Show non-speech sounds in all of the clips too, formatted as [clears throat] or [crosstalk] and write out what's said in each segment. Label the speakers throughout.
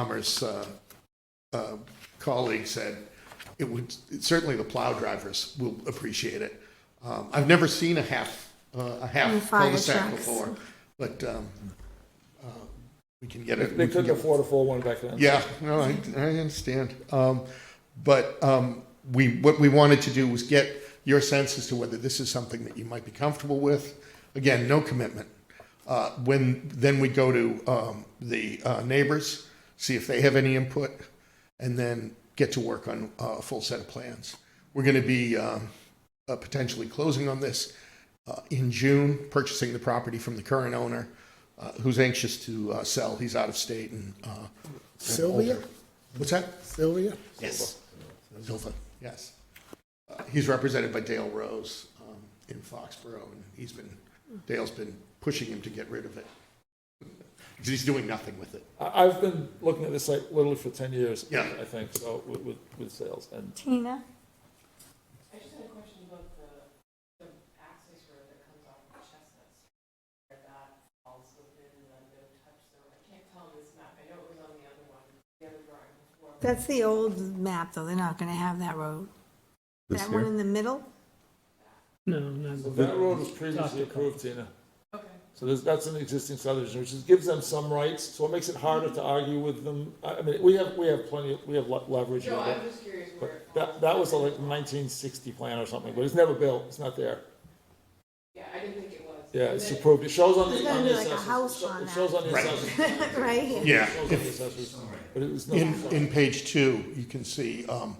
Speaker 1: Commerce uh, uh, colleague said, it would, certainly the plow drivers will appreciate it. Um, I've never seen a half, uh, a
Speaker 2: And
Speaker 1: half
Speaker 2: fire
Speaker 1: cul-de-sac
Speaker 2: trucks.
Speaker 1: before, but um, uh, we can get it. we
Speaker 3: They
Speaker 1: can
Speaker 3: couldn't
Speaker 1: get-
Speaker 3: afford a full one back then.
Speaker 1: Yeah, no, I, I understand. Um, but, um, we, what we wanted to do was get your sense as to whether this is something that you might be comfortable with. Again, no commitment. Uh, when, then we go to, um, the, uh, neighbors, see if they have any input, and then get to work on uh, a full set of plans. We're gonna be, um, uh, potentially closing on this, uh, in June, purchasing the property from the current owner, uh, who's anxious to, uh, sell. He's out of state and, uh,
Speaker 4: Sylvia?
Speaker 1: What's that?
Speaker 4: Sylvia?
Speaker 1: Yes. Zilpha, yes. Uh, He's represented by Dale Rose um, in Foxborough, and he's been, Dale's been pushing him to get rid of it. 'Cause he's doing nothing with it.
Speaker 3: I, I've been looking at this site literally for ten years.
Speaker 1: Yeah.
Speaker 3: I think, so, with, with, with sales, and
Speaker 2: Tina?
Speaker 5: I just had a question about the, the access road that comes off of Chestnut Street, where that falls within the no touch zone. I can't tell on this map, I know it was on the other one, the other drawing before.
Speaker 2: That's the old map, though, they're not gonna have that road. That one in the middle? [laughs]
Speaker 6: No, not the
Speaker 3: that road was previously approved, Tina.
Speaker 5: Okay.
Speaker 3: So there's, that's an existing subdivision, which is, gives them some rights, so it makes it harder to argue with them. I, I mean, we have, we have plenty, we have le- leverage.
Speaker 5: No,
Speaker 3: with
Speaker 5: I'm
Speaker 3: that.
Speaker 5: just curious where it
Speaker 3: But that,
Speaker 5: falls.
Speaker 3: that was a like nineteen sixty plan or something, but it's never built, it's not there.
Speaker 5: Yeah, I didn't think it was.
Speaker 3: Yeah,
Speaker 5: And
Speaker 3: it's
Speaker 5: then-
Speaker 3: approved, it shows on
Speaker 2: There's
Speaker 3: the,
Speaker 2: gotta
Speaker 3: on
Speaker 2: be
Speaker 3: the
Speaker 2: like a
Speaker 3: assessors.
Speaker 2: house
Speaker 3: It sho-
Speaker 2: on
Speaker 3: It
Speaker 2: that.
Speaker 3: shows on the
Speaker 1: Right.
Speaker 3: assessors.
Speaker 2: Right here.
Speaker 3: It
Speaker 1: Yeah.
Speaker 3: shows on the assessors, but it was
Speaker 1: In,
Speaker 3: not.
Speaker 1: in page two, you can see um,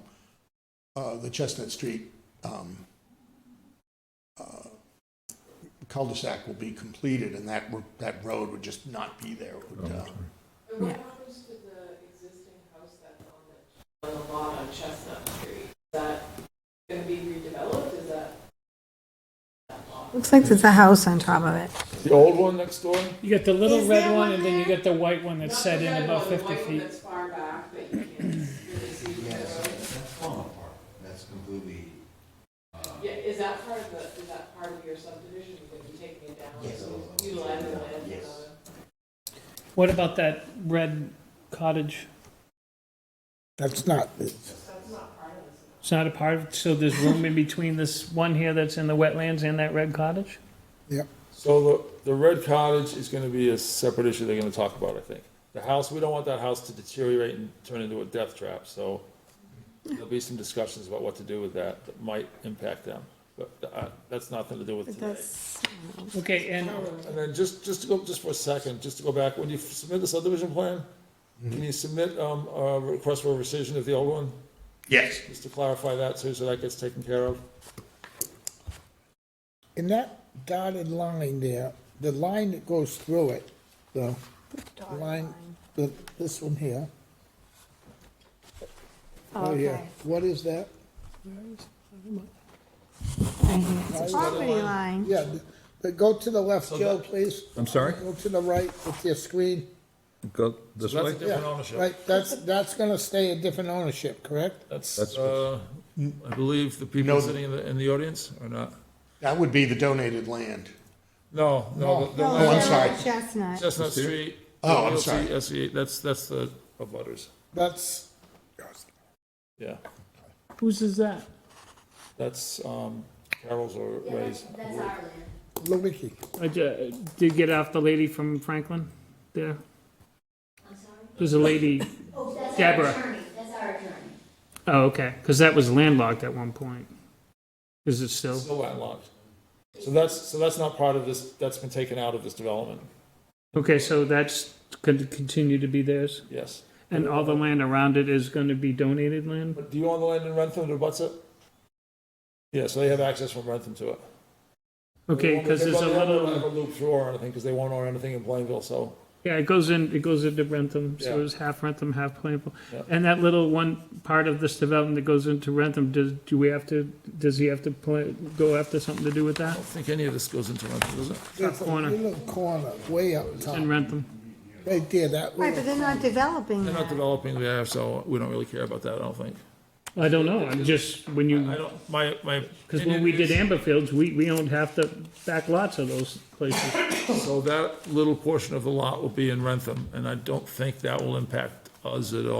Speaker 1: uh, the Chestnut Street um, uh, cul-de-sac will be completed, and that, ro- that road would just not be there. It would, uh,
Speaker 5: And what
Speaker 2: Yeah.
Speaker 5: happens to the existing house that's on the, on the lot on Chestnut Street? Is that gonna be redeveloped, is that? that lot?
Speaker 2: Looks like there's a house on top of it.
Speaker 3: The old one next door?
Speaker 6: You got the little
Speaker 2: Is there
Speaker 6: red
Speaker 2: one
Speaker 6: one, and then you
Speaker 2: there?
Speaker 6: got the white one that's
Speaker 5: Not
Speaker 6: set
Speaker 5: the
Speaker 6: in
Speaker 5: red
Speaker 6: about
Speaker 5: one, the
Speaker 6: fifty
Speaker 5: white one
Speaker 6: feet.
Speaker 5: That's far back, that you
Speaker 6: [clears throat]
Speaker 5: can't really see from the road.
Speaker 7: That's falling apart. That's completely, uh,
Speaker 5: Yeah, is that part of the, is that part of your subdivision, that you taking it down?
Speaker 7: Yes.
Speaker 5: So Utilize the land? for
Speaker 7: Yes.
Speaker 6: What about that red cottage?
Speaker 4: That's not,
Speaker 6: It's not a part of, so there's room in between this one here that's in the wetlands and that red cottage?
Speaker 4: yep.
Speaker 3: So the, the red cottage is gonna be a separate issue they're gonna talk about, I think. The house, we don't want that house to deteriorate and turn into a death trap, so there'll be some discussions about what to do with that that might impact them. But, uh, that's nothing to do with
Speaker 2: It
Speaker 3: today.
Speaker 2: does,
Speaker 6: Okay, and
Speaker 3: And then just, just to go, just for a second, just to go back, when you submit the subdivision plan, can you submit, um, a request for a rescission of the old one?
Speaker 1: Yes.
Speaker 3: Just to clarify that, too, so that gets taken care of?
Speaker 4: In that dotted line there, the line that goes through it, the the line, the, this one here.
Speaker 2: Oh,
Speaker 4: yeah.
Speaker 2: okay.
Speaker 4: What is that?
Speaker 2: Right here. It's a property line.
Speaker 4: Yeah, the- the, go to the left, Joe, please.
Speaker 8: I'm sorry?
Speaker 4: Go to the right with your screen.
Speaker 8: Go this
Speaker 3: That's a
Speaker 8: way?
Speaker 3: different ownership.
Speaker 4: Right, that's, that's gonna stay a different ownership, correct?
Speaker 3: That's,
Speaker 8: That's-
Speaker 3: uh, I believe the people
Speaker 1: No.
Speaker 3: sitting in the, in the audience or not?
Speaker 1: That would be the donated land.
Speaker 3: No, no, the- the
Speaker 2: No,
Speaker 1: Oh, I'm
Speaker 2: Sarah
Speaker 3: land,
Speaker 1: sorry.
Speaker 2: Chestnut.
Speaker 3: Chestnut Street.
Speaker 1: Oh, I'm
Speaker 3: LLC,
Speaker 1: sorry.
Speaker 3: SE, that's, that's the, of butters,
Speaker 4: That's,
Speaker 3: yeah.
Speaker 6: whose is that?
Speaker 3: That's, um, Carol's or Ray's.
Speaker 9: That's our land.
Speaker 4: Lewicki.
Speaker 6: I ju- did get off the lady from Franklin there.
Speaker 9: I'm sorry?
Speaker 6: There's a lady,
Speaker 9: [laughs] Oh, that's our
Speaker 6: Deborah.
Speaker 9: attorney. That's our attorney.
Speaker 6: oh, okay, because that was landlocked at one point. Is it still?
Speaker 3: Still landlocked. So that's, so that's not part of this, that's been taken out of this development,
Speaker 6: Okay, so that's going to continue to be theirs?
Speaker 3: yes.
Speaker 6: And all the land around it is going to be donated land?
Speaker 3: But do you own the land in Rentham that butts it? Yeah, so they have access from Rentham to it.
Speaker 6: Okay, because there's a
Speaker 3: They won't- they won't
Speaker 6: little,
Speaker 3: have a loop through or anything, because they won't own anything in Plainville, so.
Speaker 6: yeah, it goes in, it goes into Rentham, so
Speaker 3: Yeah.
Speaker 6: it's half Rentham, half Plainville.
Speaker 3: Yeah.
Speaker 6: And that little one part of this development that goes into Rentham, does, do we have to, does he have to pla- go after something to do with that?
Speaker 3: I don't think any of this goes into Rentham, does it?
Speaker 4: There's a
Speaker 6: corner.
Speaker 4: Little corner, way up top,
Speaker 6: In Rentham?
Speaker 4: right there, that
Speaker 2: Right, but
Speaker 4: little.
Speaker 2: they're not developing
Speaker 3: They're not
Speaker 2: that.
Speaker 3: developing there, so we don't really care about that, I don't think.
Speaker 6: I don't know, I'm just, when
Speaker 3: I
Speaker 6: you,
Speaker 3: don't, my, my.
Speaker 6: because when we did Amberfields, we, we owned half the back lots of those places.
Speaker 3: So that little portion of the lot will be in Rentham, and I don't think that will impact does it all.